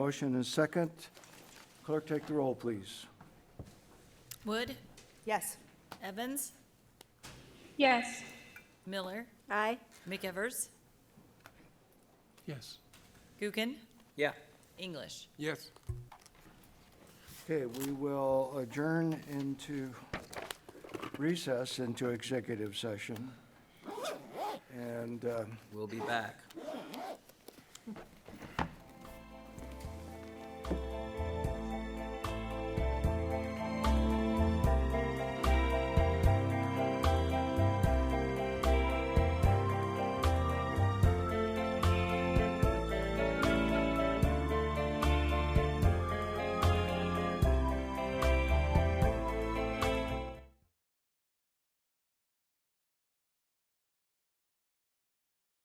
Motion and second. Clerk, take the roll, please. Wood, Yes. Evans, Yes. Miller, Aye. McEvers, Yes. Gookin, Yeah. English. Yes. Okay, we will adjourn into recess into executive session. And uh, We'll be back.